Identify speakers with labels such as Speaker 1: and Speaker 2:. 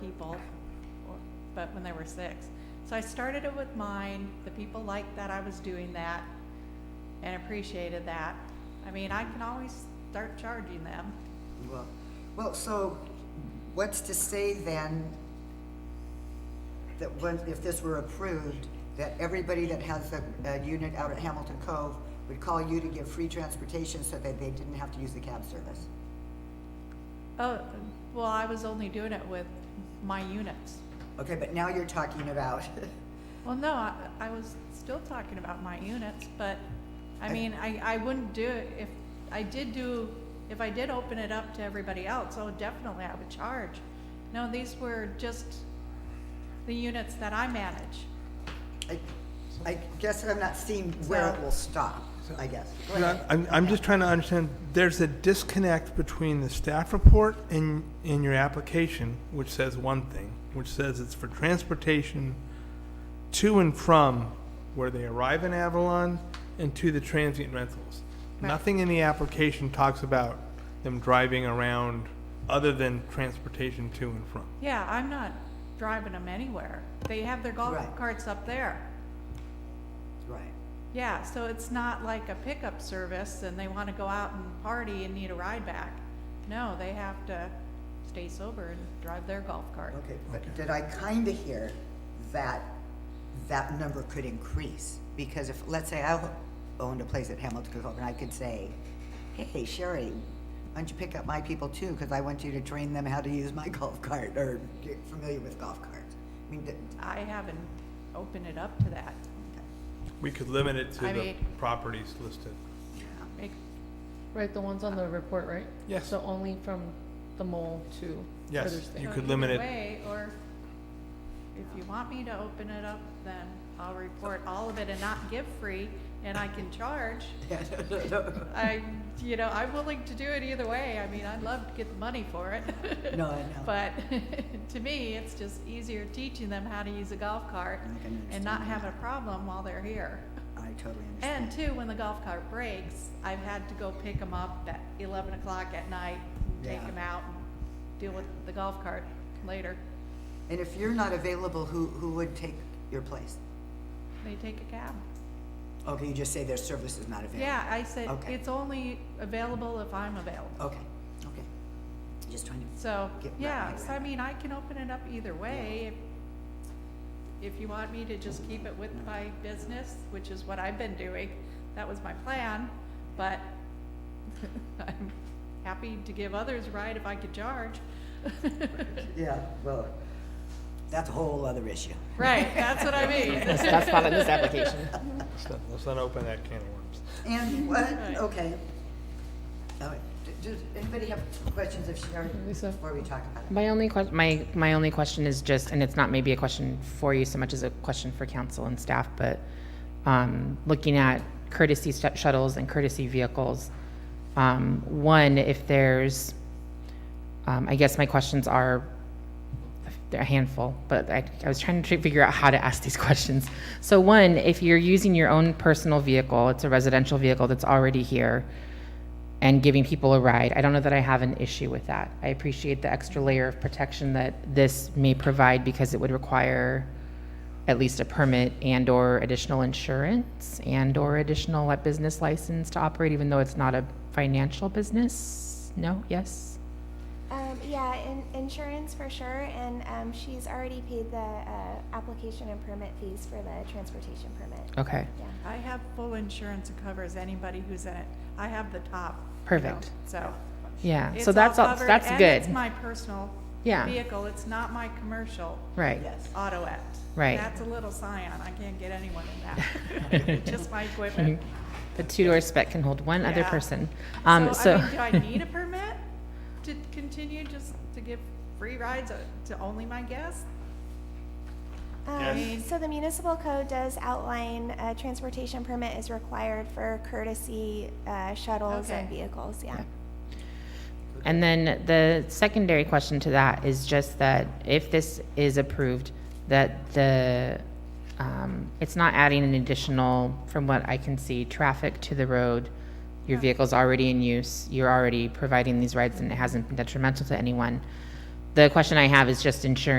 Speaker 1: people, or- but when there were six. So I started it with mine, the people liked that I was doing that and appreciated that. I mean, I can always start charging them.
Speaker 2: Well, well, so what's to say then that when, if this were approved, that everybody that has a, a unit out at Hamilton Cove would call you to give free transportation so that they didn't have to use the cab service?
Speaker 1: Oh, well, I was only doing it with my units.
Speaker 2: Okay, but now you're talking about,
Speaker 1: Well, no, I, I was still talking about my units, but, I
Speaker 2: I-
Speaker 1: mean, I, I wouldn't do it if, I did do, if I did open it up to everybody else, oh, definitely I would charge. No, these were just the units that I manage.
Speaker 2: I, I guess I'm not seeing where it
Speaker 1: So-
Speaker 2: will stop, I guess. Go
Speaker 3: No,
Speaker 2: ahead.
Speaker 3: I'm, I'm just trying to understand, there's a disconnect between the staff report and, and your application, which says one thing, which says it's for transportation to and from where they arrive in Avalon and to the transient rentals. Nothing in the application talks about them driving around other than transportation to and from.
Speaker 1: Yeah, I'm not driving them anywhere. They have their golf
Speaker 2: Right.
Speaker 1: carts up there.
Speaker 2: Right.
Speaker 1: Yeah, so it's not like a pickup service and they wanna go out and party and need a ride back. No, they have to stay sober and drive their golf cart.
Speaker 2: Okay, but did I kinda hear that that number could increase? Because if, let's say I owned a place at Hamilton Cove and I could say, hey, Sherry, why don't you pick up my people too? Cause I want you to train them how to use my golf cart or get familiar with golf carts. I mean, that-
Speaker 1: I haven't opened it up to that.
Speaker 3: We could limit it to
Speaker 1: I
Speaker 3: the
Speaker 1: mean-
Speaker 3: properties listed.
Speaker 1: Make-
Speaker 4: Right, the ones on the report, right?
Speaker 3: Yes.
Speaker 4: So only from the mole to
Speaker 3: Yes,
Speaker 4: Weatherspoon.
Speaker 3: You
Speaker 1: so
Speaker 3: could limit
Speaker 1: either
Speaker 3: it.
Speaker 1: way, Or if you want me to open it up, then I'll report all of it and not give free and I can charge. I, you know, I'm willing to do it either way. I mean, I'd love to get the money for it.
Speaker 2: No, I know.
Speaker 1: But to me, it's just easier teaching them how to use a golf cart
Speaker 2: I can
Speaker 1: and not
Speaker 2: understand
Speaker 1: have a problem while they're here.
Speaker 2: I totally
Speaker 1: And
Speaker 2: understand.
Speaker 1: two, when the golf cart breaks, I've had to go pick them up at eleven o'clock at night, and take
Speaker 2: Yeah.
Speaker 1: them out and deal with the golf cart later.
Speaker 2: And if you're not available, who, who would take your place?
Speaker 1: They take a cab.
Speaker 2: Okay, you just say their service is not available.
Speaker 1: Yeah, I said,
Speaker 2: Okay.
Speaker 1: it's only available if I'm available.
Speaker 2: Okay, okay. Just trying to
Speaker 1: So,
Speaker 2: Get my
Speaker 1: yeah,
Speaker 2: mind
Speaker 1: so I mean, I can open it up either way. If if you want me to just keep it with my business, which is what I've been doing, that was my plan, but I'm happy to give others a ride if I could charge.
Speaker 2: Yeah, well, that's a whole other issue.
Speaker 1: Right, that's what I mean.
Speaker 5: That's, that's not in this application.
Speaker 3: Let's not, let's not open that can of worms.
Speaker 2: And what,
Speaker 1: Right.
Speaker 2: okay. All right, d- Does anybody have questions of Sharon
Speaker 4: Lisa?
Speaker 2: before we talk about it?
Speaker 5: My only question, my, my only question is just, and it's not maybe a question for you so much as a question for council and staff, but, um, looking at courtesy stu- shuttles and courtesy vehicles, um, one, if there's, um, I guess my questions are, they're a handful, but I, I was trying to figure out how to ask these questions. So one, if you're using your own personal vehicle, it's a residential vehicle that's already here, and giving people a ride. I don't know that I have an issue with that. I appreciate the extra layer of protection that this may provide because it would require at least a permit and/or additional insurance and/or additional uh, business license to operate, even though it's not a financial business. No? Yes?
Speaker 6: Um, yeah, in, insurance for sure, and um, she's already paid the uh, application and permit fees for the transportation permit.
Speaker 5: Okay.
Speaker 6: Yeah.
Speaker 1: I have full insurance that covers anybody who's in it. I have the top. you
Speaker 5: Perfect.
Speaker 1: know, So.
Speaker 5: Yeah.
Speaker 1: it's
Speaker 5: so that's all,
Speaker 1: covered,
Speaker 5: that's
Speaker 1: and It's
Speaker 5: good.
Speaker 1: my personal
Speaker 5: Yeah.
Speaker 1: vehicle, it's not my commercial.
Speaker 5: right.
Speaker 2: Yes.
Speaker 1: Autoette.
Speaker 5: Right.
Speaker 1: That's a little scion, I can't get anyone in that. Just my equipment.
Speaker 5: The two-door spec can hold one other
Speaker 1: Yeah.
Speaker 5: person. Mm-hmm. Um,
Speaker 1: So,
Speaker 5: so
Speaker 1: I mean, do I need a permit to continue just to give free rides uh, to only my guests?
Speaker 6: Um, so the municipal code does outline a transportation permit is required for courtesy uh, shuttles and
Speaker 1: Okay.
Speaker 6: vehicles. Yeah.
Speaker 5: And then the secondary question to that is just that if this is approved, that the, um, it's not adding an additional, from what I can see, traffic to the road. Your vehicle's already in use, you're already providing these rides and it hasn't been detrimental to anyone. The question I have is just ensuring